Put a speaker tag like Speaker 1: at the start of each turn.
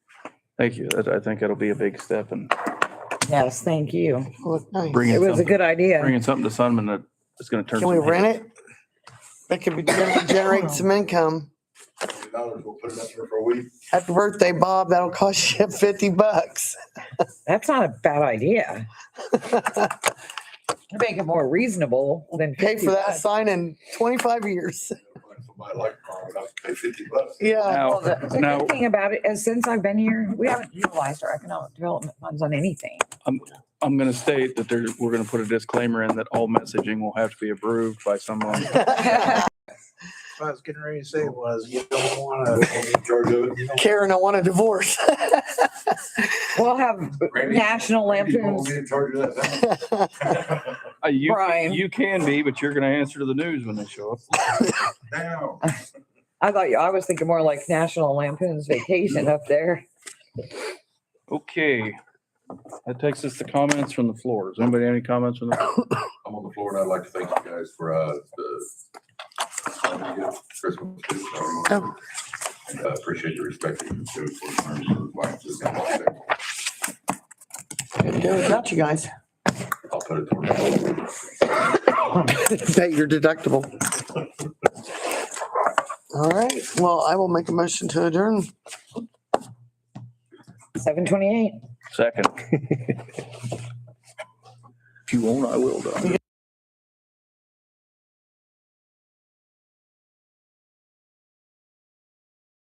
Speaker 1: Thank you. That- I think that'll be a big step in
Speaker 2: Yes, thank you.
Speaker 3: Well, nice.
Speaker 1: Bring
Speaker 2: It was a
Speaker 1: something-
Speaker 2: good idea.
Speaker 1: bringing something to Sunman that is going to turn.
Speaker 3: Can we
Speaker 1: some
Speaker 3: rent
Speaker 1: heads.
Speaker 3: it? That could be gener- generate some income.
Speaker 4: dollars, we'll put it up there for a week.
Speaker 3: Happy birthday, Bob. That'll cost you fifty bucks.
Speaker 2: That's not a bad idea. Make it more reasonable than.
Speaker 3: Pay for
Speaker 2: 50
Speaker 3: that
Speaker 2: bucks.
Speaker 3: sign in twenty-five years.
Speaker 4: Somebody like Carl, would have to pay fifty bucks.
Speaker 3: Yeah.
Speaker 1: Now,
Speaker 2: The the
Speaker 1: now,
Speaker 2: good thing about it is since I've been here, we haven't utilized our economic development funds on anything.
Speaker 1: I'm going to state that there, we're going to put a disclaimer in that all messaging will have to be approved by someone.
Speaker 5: What I was getting ready to say was, you don't
Speaker 4: We'll
Speaker 5: wanna,
Speaker 4: be in charge of it, you know.
Speaker 3: Karen, I want a divorce.
Speaker 2: We'll have
Speaker 4: Randy-
Speaker 2: National
Speaker 4: Randy won't
Speaker 2: Lampoon's
Speaker 4: be in charge of that.
Speaker 1: Uh, You,
Speaker 2: Brian.
Speaker 1: you can be, but you're going to answer to the news when they show up.
Speaker 4: Now,
Speaker 2: I thought you, I was thinking more like National Lampoon's Vacation up there.
Speaker 1: Okay. That takes us to comments from the floor. Does anybody have any comments from the?
Speaker 4: I'm on the floor and I'd like to thank you guys for, uh, the Christmas. gift, everyone. And, uh, Appreciate the respect that you show for our lives.
Speaker 3: Do without you guys.
Speaker 4: I'll put it toward.
Speaker 3: Pay your deductible. All right. Well, I will make a motion to adjourn.
Speaker 2: Seven twenty-eight.
Speaker 1: Second. If you won't, I will, though.